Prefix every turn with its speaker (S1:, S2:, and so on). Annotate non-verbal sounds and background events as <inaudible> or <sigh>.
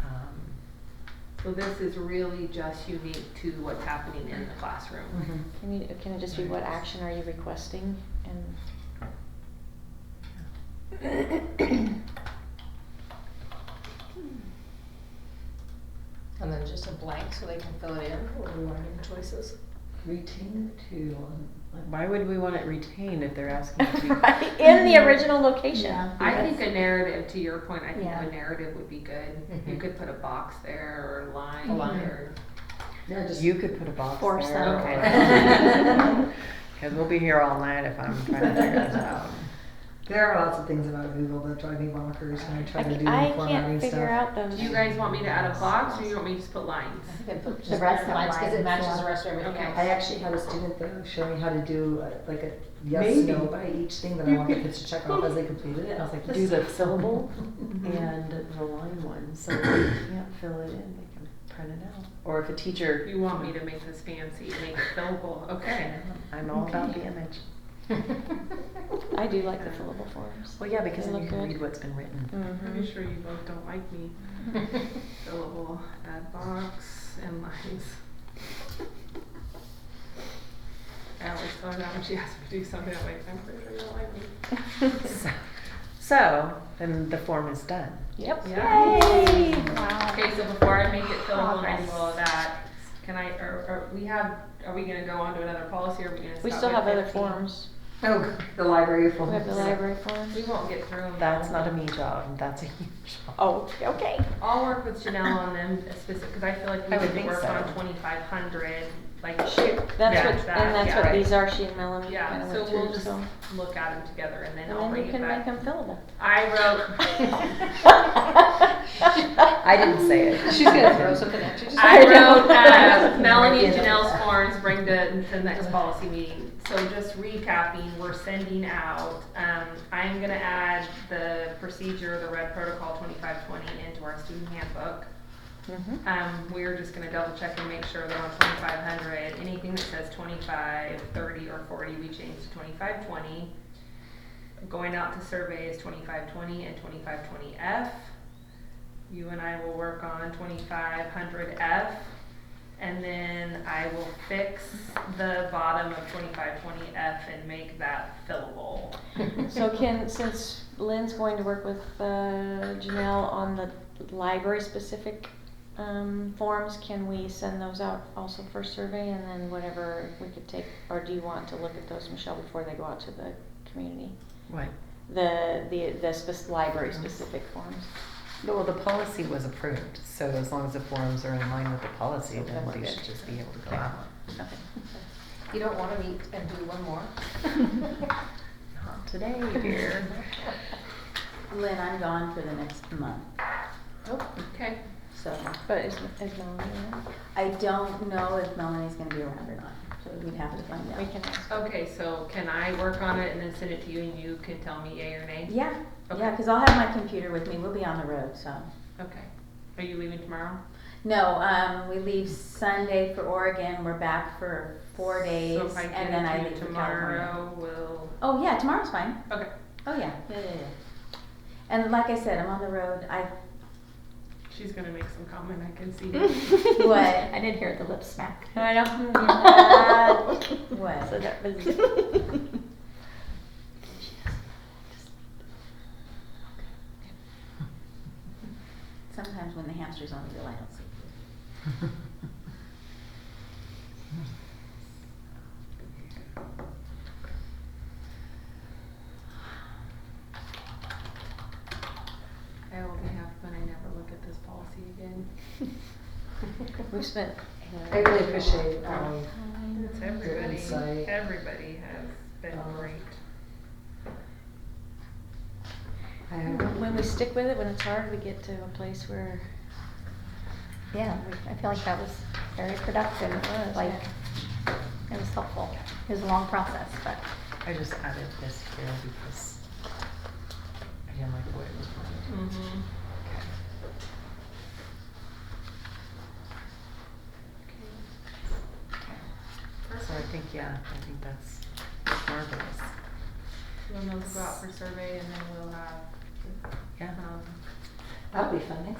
S1: um,
S2: So this is really just unique to what's happening in the classroom.
S3: Can you, can it just be what action are you requesting
S4: <laughs>
S3: and?
S5: And then just a blank so they can fill it in, what are learning choices?
S1: Retain to, um, like, why would we want it retained if they're <laughs> asking to?
S3: Right, <laughs> in the original location.
S5: Yeah.
S2: I think a narrative, to your point, I think
S3: Yeah.
S2: a narrative would be good. You
S5: Mhm.
S2: could put a box there or a
S5: A
S2: line
S5: line.
S2: or.
S5: No, just.
S4: <laughs>
S1: You could put a box
S3: Force
S1: there. <laughs>
S2: them.
S1: or- Cause we'll be here all night if I'm trying to figure this
S2: <laughs>
S1: out.
S4: There are lots of things about Google that drive me bonkers when I
S3: I
S4: try to do
S3: c- I
S4: the
S3: can't
S4: formatting
S3: figure
S4: stuff.
S3: out those.
S2: Do you guys want me to add a box or you want me to just put lines?
S4: Mm-hmm.
S5: I think I'd put
S4: The
S5: just
S4: rest of
S5: lines because
S4: mine
S5: it
S4: is
S5: matches
S4: one.
S5: the rest of everything
S2: Okay.
S5: else.
S4: I actually had a student though show me how to do uh, like a yes,
S1: Maybe.
S4: no by each thing that I wanted the kids to check off as they completed it. and I was like,
S1: Do
S4: this-
S1: the
S3: <laughs>
S1: syllable and the line one, so if they can't fill it in, they can print it out. Or if a teacher,
S2: You want me to make this fancy, make it fillable, okay.
S1: I'm all about the image.
S3: I do like the fillable forms.
S1: Well, yeah, because
S3: They
S1: then you
S3: look
S1: can
S3: good.
S1: read what's been written.
S2: <laughs> Pretty
S3: Mhm.
S2: sure you both don't like me.
S1: Mm-hmm.
S2: Fillable, add box and lines. <laughs> I always tell her that when she asks me to do something, I'm like, I'm pretty sure you don't like
S1: <laughs>
S2: me.
S1: So- So, then the form is done.
S3: Yep.
S2: Yeah.
S3: Yay!
S2: Okay, so before I make it fillable
S3: Oh,
S2: and I do all of that, can I, or, or we have, are we gonna go on to another policy or are we gonna stop
S3: We still
S2: at
S3: have other
S2: 15?
S3: forms.
S4: <laughs> Oh, the library full.
S3: We have the library
S2: We
S3: forms.
S2: won't get through them.
S1: That's
S2: all.
S1: not a me job, that's a you job.
S3: Oh, okay.
S2: I'll work with Janelle on them specific, cause I feel like we
S1: I would
S2: could
S1: think
S2: work
S1: so.
S2: on twenty-five hundred, like.
S3: Shoot, that's
S2: yeah,
S3: what,
S2: that,
S3: and that's
S2: yeah,
S3: what
S2: right.
S3: these are, she and Melanie kind
S2: Yeah,
S3: of
S2: so
S3: went
S2: we'll
S3: through,
S2: just
S3: so.
S2: look at them together and then
S3: And
S2: I'll
S3: then
S2: bring
S3: you
S2: it
S3: can
S2: back.
S3: make them fillable.
S2: I
S3: <laughs>
S2: wrote. <laughs>
S3: I
S1: I didn't say it.
S5: She's gonna throw something at you.
S2: I
S3: I know.
S2: wrote uh, Melanie and Janelle's forms, bring to the next policy meeting. So just recapping, we're sending out, um, I'm gonna add the procedure, the red protocol twenty-five twenty into our student handbook.
S3: Mhm.
S2: Um, we're just gonna double check and make sure they're on twenty-five hundred, anything that says 25, 30, or forty, we change to twenty-five twenty. Going out to survey is twenty-five twenty and twenty-five twenty F. You and I will work on twenty-five hundred F, and then I will fix the bottom of twenty-five twenty F and make that fillable.
S3: So can, since Lynn's going to work with uh, Janelle on the library-specific um, forms, can we send those out also for survey and then whatever we could take, or do you want to look at those, Michelle, before they go out to the community?
S1: Right.
S3: The, the, the spec- library-specific forms?
S1: Well, the policy was approved, so as long as the forms are in line with the policy,
S3: So
S1: then
S3: then we're
S1: we
S3: good.
S1: should just be able to go out.
S3: Okay.
S5: You don't wanna meet and do one more?
S1: <laughs> Not today,
S5: <laughs>
S1: dear.
S6: Lynn, I'm gone for the next month,
S2: Oh, Okay.
S6: so
S3: But is, is Melanie there?
S6: I don't know if Melanie's gonna be around or not, so we'd have to find out.
S3: We can ask.
S2: Okay, so can I work on it and then send it to you and you can tell me yay or nay?
S6: Yeah, yeah,
S2: Okay.
S6: because I'll have my computer with me, we'll be on the road, so.
S2: Okay. Are you leaving tomorrow?
S6: No, um, we leave Sunday for Oregon, we're back for four days,
S2: So if I get
S6: and then
S2: it to
S6: I
S2: you
S6: leave for California.
S2: tomorrow, will
S6: Oh, yeah, tomorrow's fine,
S2: okay.
S6: oh, yeah, yeah, yeah, yeah. And like I said, I'm on the road, I,
S2: She's gonna make some comment. I can <laughs> see.
S6: What?
S7: I didn't hear the lip smack.
S3: I don't.
S6: What?
S3: So that was.
S6: sometimes when the hamster's on the wheel, I don't see.
S2: I only have when I never look at this policy again.
S3: We've spent.
S4: I really appreciate, um,
S2: It's everybody.
S4: insight.
S2: Everybody has been
S4: Um,
S2: great.
S4: I have
S3: When we stick with it, when it's hard, we get to a place where
S7: Yeah, I feel like that was very productive.
S3: It was,
S7: Like,
S3: yeah.
S7: it was helpful. It was a long process, but
S1: I just added this here because I didn't like the way it was worded.
S2: Mm-hmm.
S1: So I think, yeah, I think that's marvelous.
S2: We'll go out for survey and then we'll have
S1: Yeah.
S2: um,
S4: That'll be fun next